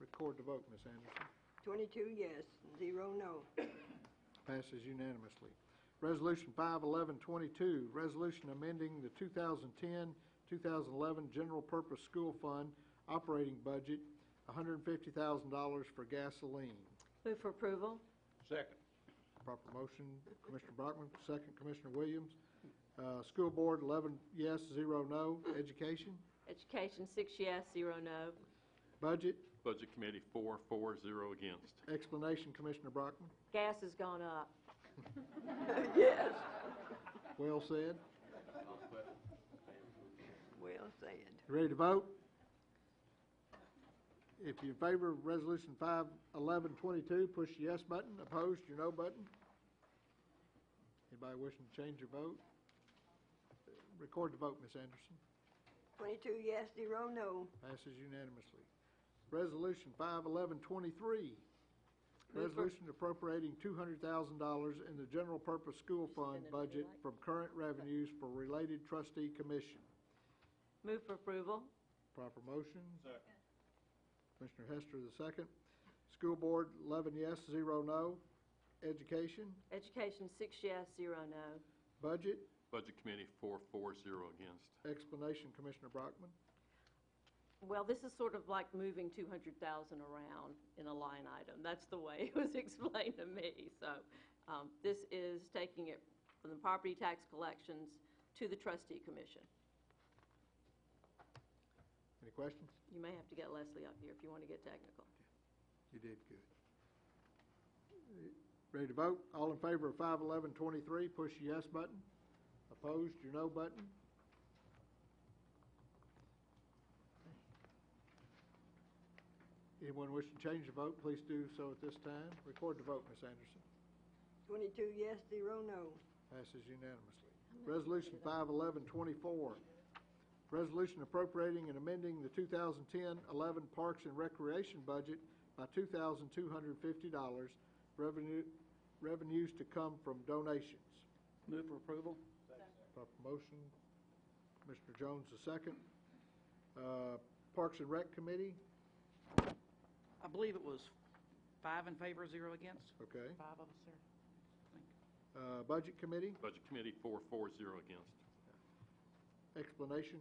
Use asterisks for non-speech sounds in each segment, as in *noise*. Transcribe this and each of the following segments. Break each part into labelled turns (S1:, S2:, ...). S1: record the vote, Ms. Anderson.
S2: 22 yes, zero *laughs* no.
S1: Passes unanimously. Resolution 51122, resolution amending the 2010-2011 General Purpose School Fund operating budget, $150,000 for gasoline.
S3: Move for approval.
S4: Second.
S1: Proper motion, Commissioner Brockman, second, Commissioner Williams. Uh, School Board, 11 yes, 0 no. Education,
S3: Education, six yes, zero no.
S1: budget,
S5: Budget Committee, four, four, zero against.
S1: explanation, Commissioner Brockman.
S3: Gas has gone up.
S1: Well said.
S2: Well said.
S1: You Ready to vote? If you're in favor of Resolution 51122, push the yes button. Opposed, your no button. Anybody wishing to change your vote? Record the vote, Ms. Anderson.
S2: 22 yes, zero no.
S1: Passes unanimously. Resolution 51123,
S3: for-
S1: resolution appropriating $200,000 in the general purpose school fund budget from current revenues for related trustee commission.
S3: Move for approval.
S1: Proper motion? Commissioner Hester, the second. School Board, 11 yes, 0 no. Education,
S3: Education, six yes, zero no.
S1: Budget,
S5: Budget Committee, four, four, zero against.
S1: explanation, Commissioner Brockman.
S3: Well, this is sort of like moving 200,000 around in a line item. That's the way *laughs* it was explained to me. So um, this is taking it from the property tax collections to the trustee commission.
S1: Any questions?
S3: You may have to get Leslie up here if you want to get technical.
S1: You did good. Ready to vote? All in favor of 51123, push the yes button. Opposed, your no button. Anyone wishing to change the vote, please do so at this time. Record the vote, Ms. Anderson.
S2: 22 yes, zero no.
S1: Passes unanimously. Resolution 51124, resolution appropriating and amending the 2010-11 Parks and Recreation budget by $2,250, revenue, revenues to come from donations.
S4: Move for approval?
S1: Proper motion, Commissioner Jones the second. Uh, Parks and Rec Committee,
S4: I believe it was five in favor, zero against.
S1: okay.
S4: Five of us, sir. I think.
S1: Uh, Budget Committee,
S5: Budget Committee, four, four, zero against.
S1: explanation,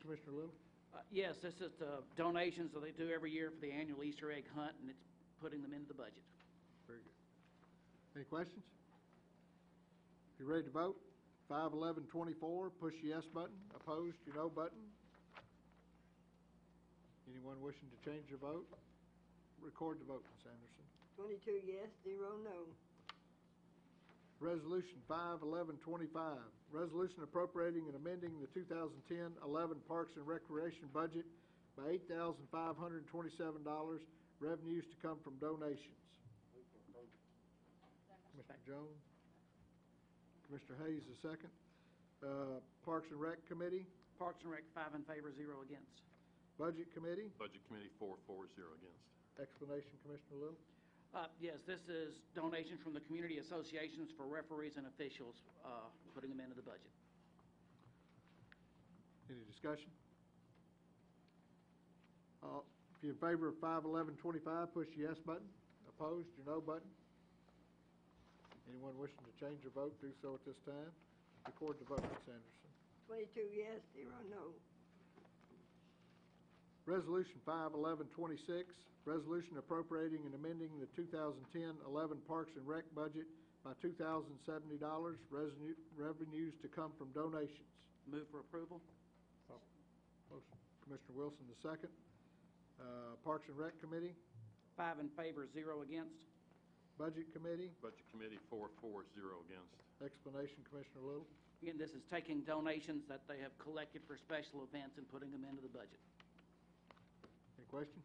S1: Commissioner Little?
S4: Uh, Yes, this is the donations that they do every year for the annual Easter egg hunt, and it's putting them into the budget.
S1: Very good. Any questions? If you're ready to vote, five eleven twenty-four, push the yes button, opposed, your no button. Anyone wishing to change their vote? Record the vote, Ms. Anderson.
S2: 22 yes, zero no.
S1: Resolution five eleven twenty-five, resolution appropriating and amending the 2010-11 Parks and Recreation budget by eight thousand five hundred and twenty-seven dollars, revenues to come from donations. Commissioner Jones? Commissioner Hayes, the second. Uh, Parks and Rec Committee,
S4: Parks and Rec, five in favor, zero against.
S1: Budget Committee,
S5: Budget Committee, four, four, zero against.
S1: explanation, Commissioner Little.
S4: Uh, Yes, this is donations from the community associations for referees and officials, uh, putting them into the budget.
S1: Any discussion? Uh, If you're in favor of five eleven twenty-five, push the yes button. Opposed, your no button. Anyone wishing to change their vote, do so at this time. Record the vote, Ms. Anderson.
S2: 22 yes, zero no.
S1: Resolution 51126, resolution appropriating and amending the 2010-11 Parks and Rec budget by $2,070, revenue- revenues to come from donations.
S4: Move for approval?
S1: Motion, Commissioner Wilson, the second. Uh, Parks and Rec Committee,
S4: Five in favor, zero against.
S1: Budget Committee,
S5: Budget Committee, four, four, zero against.
S1: explanation, Commissioner Little.
S4: Again, this is taking donations that they have collected for special events and putting them into the budget.
S1: Any questions?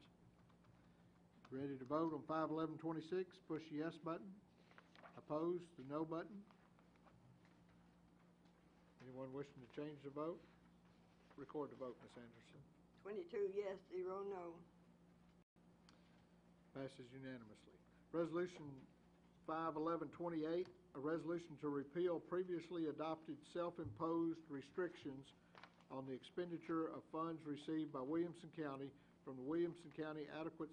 S1: Ready to vote on 51126, push the yes button. Opposed, the no button. Anyone wishing to change the vote? Record the vote, Ms. Anderson.
S2: 22 yes, zero no.
S1: Passes unanimously. Resolution 51128, a resolution to repeal previously adopted self-imposed restrictions on the expenditure of funds received by Williamson County from the Williamson County Adequate